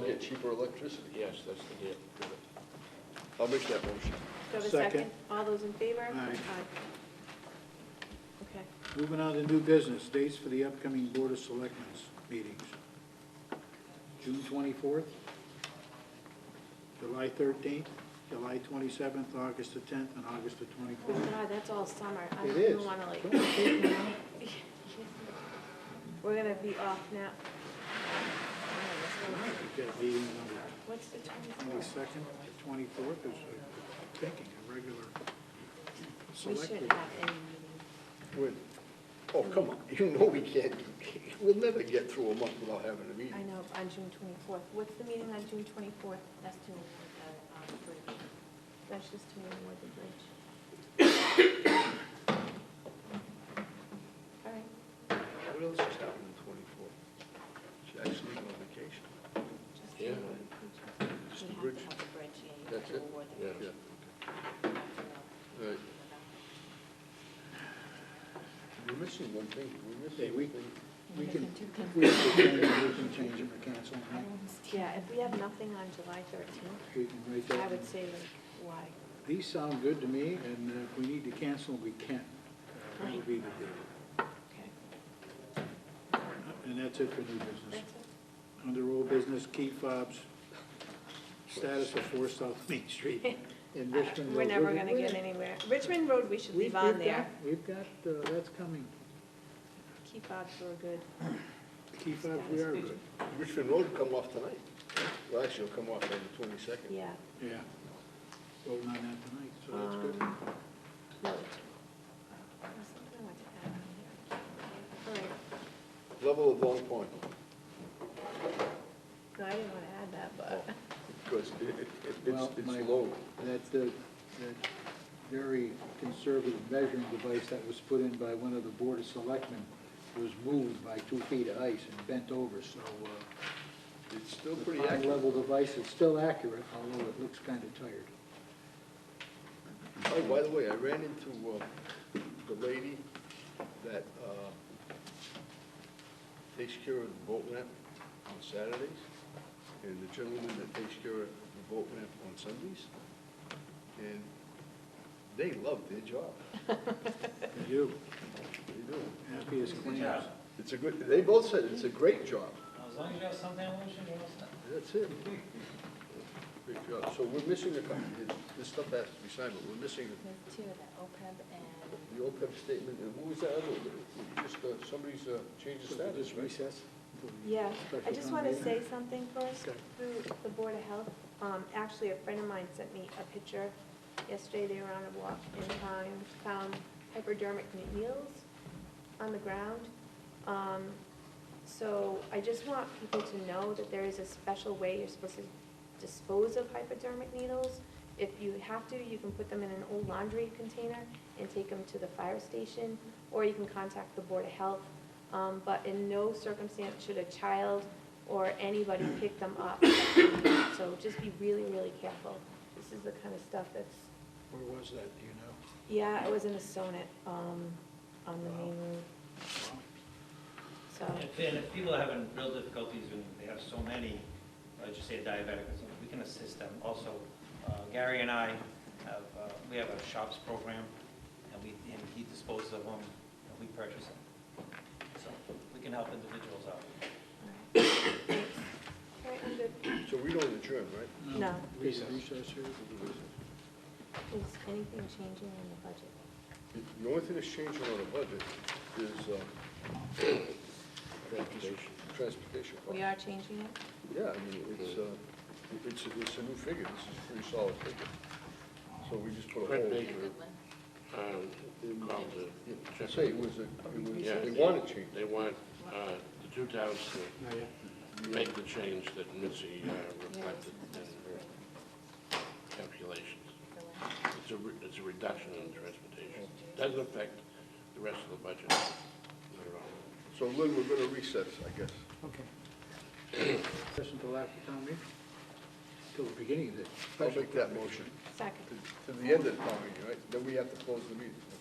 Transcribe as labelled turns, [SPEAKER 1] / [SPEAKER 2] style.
[SPEAKER 1] get cheaper electricity.
[SPEAKER 2] Yes, that's the deal.
[SPEAKER 1] I'll make that motion.
[SPEAKER 3] Do I have a
[SPEAKER 4] Second.
[SPEAKER 3] second? All those in favor?
[SPEAKER 4] Aye.
[SPEAKER 3] Okay.
[SPEAKER 4] Moving on to new business, dates for the upcoming Board of Selectmen's meetings. June twenty-fourth, July thirteenth, July twenty-seventh, August the tenth, and August the
[SPEAKER 3] Oh,
[SPEAKER 4] twenty-fourth.
[SPEAKER 3] God, that's all summer. I
[SPEAKER 4] It
[SPEAKER 3] don't even
[SPEAKER 4] is.
[SPEAKER 3] wanna like,
[SPEAKER 4] Don't take me out.
[SPEAKER 3] we're gonna be off now.
[SPEAKER 4] We've got meeting number
[SPEAKER 3] What's the twenty-fourth?
[SPEAKER 4] twenty-second, the twenty-fourth is, uh, thinking, a regular
[SPEAKER 3] We
[SPEAKER 4] select.
[SPEAKER 3] shouldn't have any meetings.
[SPEAKER 1] Wait. Oh, come on, you know we can't, we'll never get through a month without having a
[SPEAKER 3] I
[SPEAKER 1] meeting.
[SPEAKER 3] know, on June twenty-fourth. What's the meeting on June twenty-fourth? That's too many, uh, um, bridge. That's just too many more than bridge. All right,
[SPEAKER 1] What else is happening the twenty-fourth? She's actually on vacation.
[SPEAKER 3] just.
[SPEAKER 1] Just
[SPEAKER 3] You
[SPEAKER 2] Yeah.
[SPEAKER 1] the
[SPEAKER 3] have
[SPEAKER 1] bridge.
[SPEAKER 3] to have the bridge, yeah. you
[SPEAKER 1] That's
[SPEAKER 3] have to
[SPEAKER 1] it?
[SPEAKER 3] award the
[SPEAKER 2] Yeah.
[SPEAKER 3] bridge.
[SPEAKER 1] All right. We're missing one thing, we're
[SPEAKER 4] Hey,
[SPEAKER 1] missing
[SPEAKER 4] we-
[SPEAKER 1] one thing.
[SPEAKER 4] We can, if we have to change, it, we can change them or cancel them, right?
[SPEAKER 3] Yeah, if we have nothing on July thirteenth,
[SPEAKER 4] we can write that.
[SPEAKER 3] I
[SPEAKER 4] in.
[SPEAKER 3] would say like, why?
[SPEAKER 4] These sound good to me, and uh, if we need to cancel, we can. That would be the deal.
[SPEAKER 3] Okay.
[SPEAKER 4] And that's it for new
[SPEAKER 3] That's
[SPEAKER 4] business.
[SPEAKER 3] it.
[SPEAKER 4] Under old business, key fobs, status of four South Main Street in Richmond.
[SPEAKER 3] We're
[SPEAKER 4] Road.
[SPEAKER 3] never gonna get anywhere. Richmond Road, we should
[SPEAKER 4] We've-
[SPEAKER 3] leave on
[SPEAKER 4] we've
[SPEAKER 3] there.
[SPEAKER 4] got- We've got, uh, that's coming.
[SPEAKER 3] Key fobs were good.
[SPEAKER 4] Key fobs, we are good.
[SPEAKER 1] Richmond Road will come off tonight. Well, actually, it'll come off on the twenty-second.
[SPEAKER 3] Yeah.
[SPEAKER 4] Yeah. Voting on that tonight, so that's good.
[SPEAKER 3] Um, no. There's something I wanted to add on there. All right.
[SPEAKER 1] Level of Long Pond,
[SPEAKER 3] No, I didn't wanna add that, but.
[SPEAKER 1] because it, it, it's,
[SPEAKER 4] Well, my-
[SPEAKER 1] it's low.
[SPEAKER 4] That, uh, that very conservative measuring device that was put in by one of the Board of Selectmen was moved by two feet of ice and bent over, so, uh,
[SPEAKER 1] It's still pretty
[SPEAKER 4] The
[SPEAKER 1] accurate.
[SPEAKER 4] high-level device is still accurate, although it looks kind of tired.
[SPEAKER 1] Oh, by the way, I ran into, uh, the lady that, uh, takes care of the boat ramp on Saturdays, and the gentleman that takes care of the boat ramp on Sundays, and they love their job,
[SPEAKER 4] You,
[SPEAKER 1] they do.
[SPEAKER 4] happy as
[SPEAKER 5] Good
[SPEAKER 4] clams.
[SPEAKER 5] job.
[SPEAKER 1] It's a good, they both said it's a great job,
[SPEAKER 5] As long as you have some ammunition, you're all set.
[SPEAKER 1] that's it. Great job, so we're missing a couple, this stuff has to be signed, but we're missing
[SPEAKER 6] There's two, the OPEB and
[SPEAKER 1] the OPEB statement, and who was that other one? Just, uh, somebody's, uh, changed the
[SPEAKER 4] So we'll
[SPEAKER 1] status,
[SPEAKER 4] just
[SPEAKER 1] right?
[SPEAKER 4] recess till the
[SPEAKER 3] Yeah, I
[SPEAKER 4] special
[SPEAKER 3] just
[SPEAKER 4] town
[SPEAKER 3] want to
[SPEAKER 4] meeting.
[SPEAKER 3] say something first
[SPEAKER 4] Okay.
[SPEAKER 3] through the Board of Health. Um, actually, a friend of mine sent me a picture yesterday. They were on a walk and found, found hypodermic needles on the ground. Um, so I just want people to know that there is a special way you're supposed to dispose of hypodermic needles. If you have to, you can put them in an old laundry container and take them to the fire station, or you can contact the Board of Health. Um, but in no circumstance should a child or anybody pick them up. So just be really, really careful. This is the kind of stuff that's,
[SPEAKER 4] Where was that, do you
[SPEAKER 3] yeah, it was in a sonnet, um, on the main road,
[SPEAKER 4] know?
[SPEAKER 3] so,
[SPEAKER 5] If- And if people are having real difficulties and they have so many, let's just say a diabetic or something, we can assist them. Also, uh, Gary and I have, uh, we have a shops program and we, and he disposes of them and we purchase them. So we can help individuals out.
[SPEAKER 3] all right. Thanks. All right, I'm good.
[SPEAKER 1] So we don't adjourn, right?
[SPEAKER 3] No.
[SPEAKER 4] Recess recess here?
[SPEAKER 3] Is anything changing in the budget?
[SPEAKER 1] The- The only thing that's changing on the budget is, uh, Transportation. Transportation. cost.
[SPEAKER 3] We are changing it?
[SPEAKER 1] Yeah, I mean, it's, uh, it's, it's a new figure, this is a pretty solid figure. So we just put a
[SPEAKER 2] Fred
[SPEAKER 1] hole.
[SPEAKER 2] Baker, um, called
[SPEAKER 1] Yeah,
[SPEAKER 2] the.
[SPEAKER 1] I'd Say, it was a, it was,
[SPEAKER 2] Yeah,
[SPEAKER 1] they want to change.
[SPEAKER 2] They want, uh, the two towns to make the change that Missy uh, reflected in her calculations. It's a, re- it's a reduction in transportation. Doesn't affect the rest of the budget at all.
[SPEAKER 1] So Lynn, we're gonna recess, I guess.
[SPEAKER 4] Okay. Session till after town meeting? Till the beginning of the
[SPEAKER 1] I'll
[SPEAKER 4] special.
[SPEAKER 1] make that motion.
[SPEAKER 3] Second.
[SPEAKER 1] To- To the end of the town meeting, right? Then we have to close the meeting.